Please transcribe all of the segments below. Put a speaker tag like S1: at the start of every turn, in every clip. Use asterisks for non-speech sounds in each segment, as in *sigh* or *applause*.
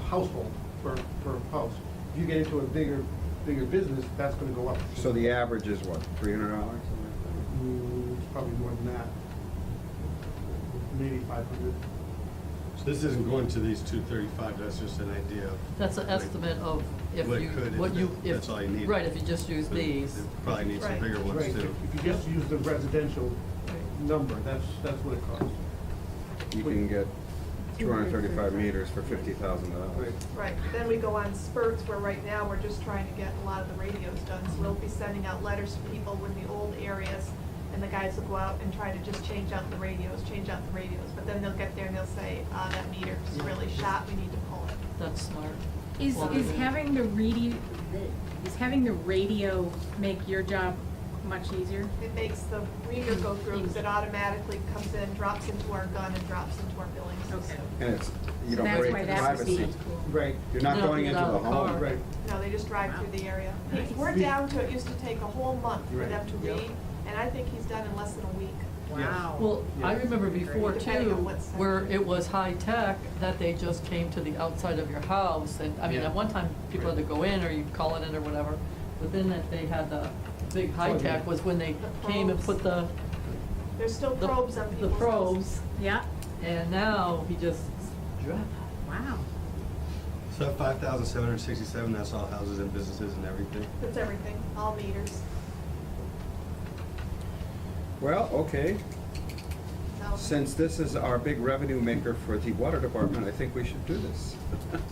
S1: household, per, per house. If you get into a bigger, bigger business, that's gonna go up.
S2: So the average is what, three hundred dollars?
S1: Mm, it's Probably more than that. Maybe five hundred.
S3: So this isn't going to these two thirty-five, that's just an idea. of-
S4: That's an estimate of if
S3: What it
S4: you,
S3: could,
S4: what
S3: if
S4: you,
S3: that-
S4: if.
S3: that's all you need.
S4: Right, if you just use
S3: But
S4: these.
S3: it Probably needs some
S5: Right.
S3: bigger
S1: Right,
S3: ones too.
S1: if you just use the residential number, that's, that's what it costs.
S2: You can get two hundred and thirty-five meters for fifty thousand dollars.
S1: Right.
S5: Right, then we go on spurts where right now we're just trying to get a lot of the radios done. So we'll be sending out letters to people in the old areas and the guys will go out and try to just change out the radios, change out the radios. But then they'll get there and they'll say, ah, that meter's really shot, we need to pull it.
S4: That's smart.
S6: Is,
S4: Well,
S6: is
S4: then-
S6: having the radio, is having the radio make your job much easier?
S5: It makes the reader go through because it automatically comes in, drops into our gun and drops into our billing system.
S2: And it's, you
S6: So
S2: don't
S6: that's
S2: break
S6: why
S2: the
S6: that would
S2: privacy.
S6: be cool.
S1: Right,
S2: You're not
S4: No,
S2: going into
S4: not
S2: the
S4: the car.
S2: home.
S1: Oh, right.
S5: No, they just drive through the area.
S6: Nice.
S5: We're down to, it used to take a whole month for
S1: Right.
S5: them to
S1: Yep.
S5: read, and I think he's done in less than a week.
S1: Wow.
S4: Well, I
S1: Yeah.
S4: remember before
S5: Depending
S4: too,
S5: on what section.
S4: where it was high-tech, that they just came to the outside of your house, and, I mean,
S1: Yeah.
S4: at one time, people had to go in, or you'd call it in or whatever, but then that they had the big high-tech was when they
S5: The
S4: came and put the,
S5: There's still
S4: the
S5: probes on
S4: the
S5: people's
S4: probes,
S5: houses.
S6: Yeah,
S4: and now he just drop
S6: wow.
S3: So that five thousand seven hundred sixty-seven, that's all houses and businesses and everything.
S5: That's everything, all meters.
S2: Well, okay,
S6: Oh.
S5: So-
S2: since this is our big revenue maker for the water department, I think we should do
S1: *laughs*
S2: this.
S5: If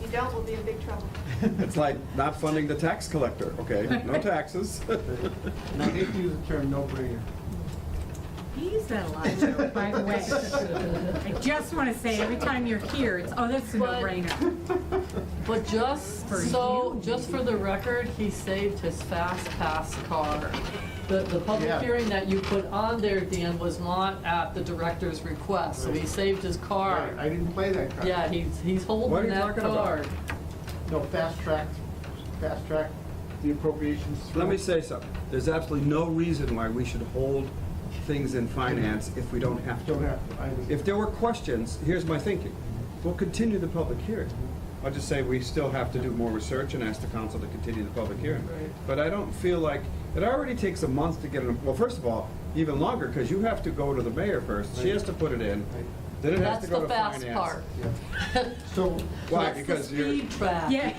S5: you don't, we'll be in big trouble.
S2: It's like not funding the tax collector, okay?
S6: *laughs*
S2: No taxes. *laughs*
S1: Now, they can use the term no-brainer.
S6: He used that a lot, Joe, by the way.
S4: it.
S6: I just want to say, every time you're here, it's, oh, that's a
S4: But-
S6: no-brainer.
S4: But just,
S6: For
S4: so,
S6: you.
S4: just for the record, he saved his fast pass car. The, the public
S1: Yeah.
S4: hearing that you put on there, Dan, was not at the director's request, so he
S1: Right.
S4: saved his car.
S1: Right, I didn't play that card.
S4: Yeah, he's, he's
S2: What are
S4: holding
S2: you
S4: that
S2: talking about?
S4: card.
S1: No, fast track, fast track the appropriations.
S2: Let me say something. There's absolutely no reason why we should hold things in finance if we don't have to.
S1: Don't have to, I was-
S2: If there were questions, here's my thinking. We'll continue the public hearing. I'll just say we still have to do more research and ask the council to continue the public hearing.
S4: Right.
S2: But I don't feel like, it already takes a month to get an, well, first of all, even longer, because you have to go to the mayor first. She has to put it in.
S1: Right.
S2: Then it has
S4: That's
S2: to go
S4: the
S2: to
S4: fast
S2: finance.
S4: part. *laughs*
S1: Yeah. So,
S2: Why?
S4: That's the
S2: Because you're,
S4: Speed trap.
S6: Yeah,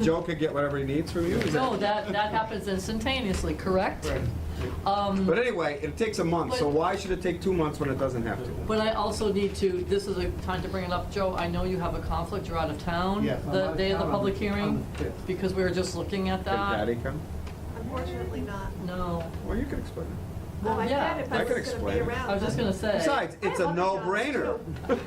S2: Joe could get whatever he needs from you? Is
S4: *laughs* No, that, that happens instantaneously, correct?
S1: right,
S4: Um,
S2: But anyway, it takes a month, so
S4: But-
S2: why should it take two months when it doesn't have to?
S4: But I also need to, this is a time to bring it up, Joe, I know you have a conflict, you're out of town.
S1: Yes, I'm out
S4: The
S1: of
S4: day of the
S1: town on
S4: public
S1: the- on
S4: hearing,
S1: the fifth.
S4: because we were just looking at
S2: Did
S4: that.
S2: Daddy come?
S5: Unfortunately not.
S4: No,
S2: Well, you can explain it.
S5: Well, I
S4: yeah.
S5: can if
S2: I can
S5: I was gonna be
S2: explain it.
S5: around.
S4: I was just gonna say.
S2: Besides, it's a
S5: I love
S2: no-brainer. *laughs*
S4: I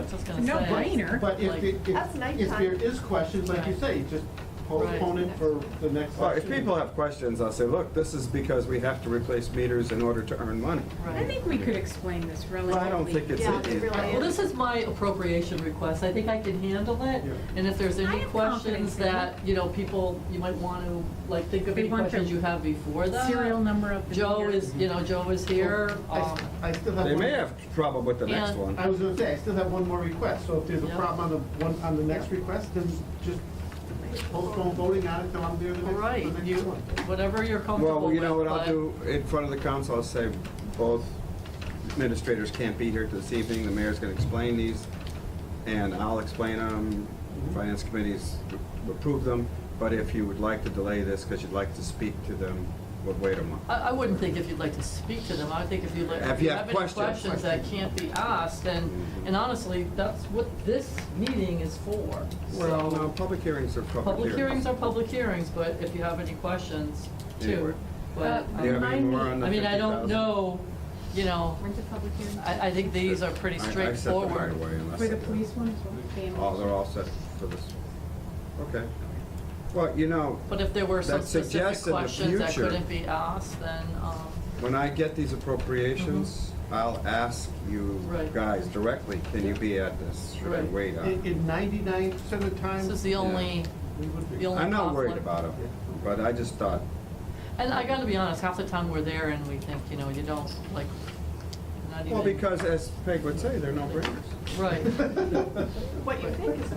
S4: was just gonna say.
S6: no-brainer.
S1: but if,
S4: Like-
S1: it-
S5: That's
S1: if, if
S5: nighttime.
S1: there is questions, like you
S4: Right.
S1: say, just postpone it for the next
S2: Well, if
S1: session.
S2: people have questions, I'll say, look, this is because we have to replace meters in order to earn money.
S6: I
S4: Right.
S6: think we could explain this relatively.
S2: Well, I don't think it's.
S5: Yeah, it really
S4: Well, this is my appropriation request, I think I can handle it,
S1: Yeah.
S4: and if there's
S6: I
S4: any
S6: have
S4: questions
S6: confidence in it.
S4: that, you know, people, you might want to, like, think of
S6: They
S4: any
S6: want their
S4: questions you have before that.
S6: Serial number of the.
S4: Joe
S6: meter.
S4: is, you know, Joe is here,
S1: I s-
S4: um,
S1: I still have
S2: They
S1: one-
S2: may have trouble with the next
S4: And-
S2: one.
S1: I was gonna say, I still have one more request, so if there's a
S4: Yeah.
S1: problem on the, one, on the next request, then just postpone voting on it till I'm there the
S4: Um, all
S1: next,
S4: right,
S1: the
S4: you,
S1: next one.
S4: whatever you're comfortable
S2: Well,
S4: with,
S2: you know what I'll
S4: but-
S2: do, in front of the council, I'll say both administrators can't be here this evening, the mayor's gonna explain these, and I'll explain them, finance committees approve them, but if you would like to delay this, because you'd like to speak to them, we'll wait a month.
S4: I, I wouldn't think if you'd like to speak to them, I would think if you'd like, if you have any
S2: questions. Mm-hmm.
S4: questions that can't be asked, and, and honestly, that's what this meeting is for,
S2: Well, no,
S4: so.
S2: public hearings are public
S4: Public
S2: hearings.
S4: hearings are public hearings, but if you have any questions,
S2: Anyway.
S4: too. But, um,
S2: Do you have any
S6: Remind me-
S2: more on the
S4: Uh, I mean, I don't
S2: 50,000?
S4: know, you know,
S6: Weren't the public hearings
S4: I, I think these are pretty
S2: I- I set them right
S4: straightforward.
S2: away unless
S6: For the
S2: they're-
S6: police one as well?
S2: Oh, they're all set for this. Okay. Well, you know,
S4: But if there were some
S2: That
S4: specific
S2: suggests in the
S4: questions that
S2: future-
S4: couldn't be asked, then, um,
S2: When I get these appropriations, I'll ask you
S4: Mm-hmm. Right.
S2: guys directly, can you be at this? Should I
S4: Right.
S2: wait on?
S1: In-
S2: it?
S1: In ninety-nine percent of the time.
S4: this is the only,
S1: we would be.
S4: the only
S2: I'm not worried
S4: conflict.
S2: about it, but I just thought,
S4: And I gotta be honest, half the time we're there and we think, you know, you don't, like, not even.
S2: well, because as Peg would say, they're no-brainers.
S4: Right.
S1: *laughs*
S5: What you think is a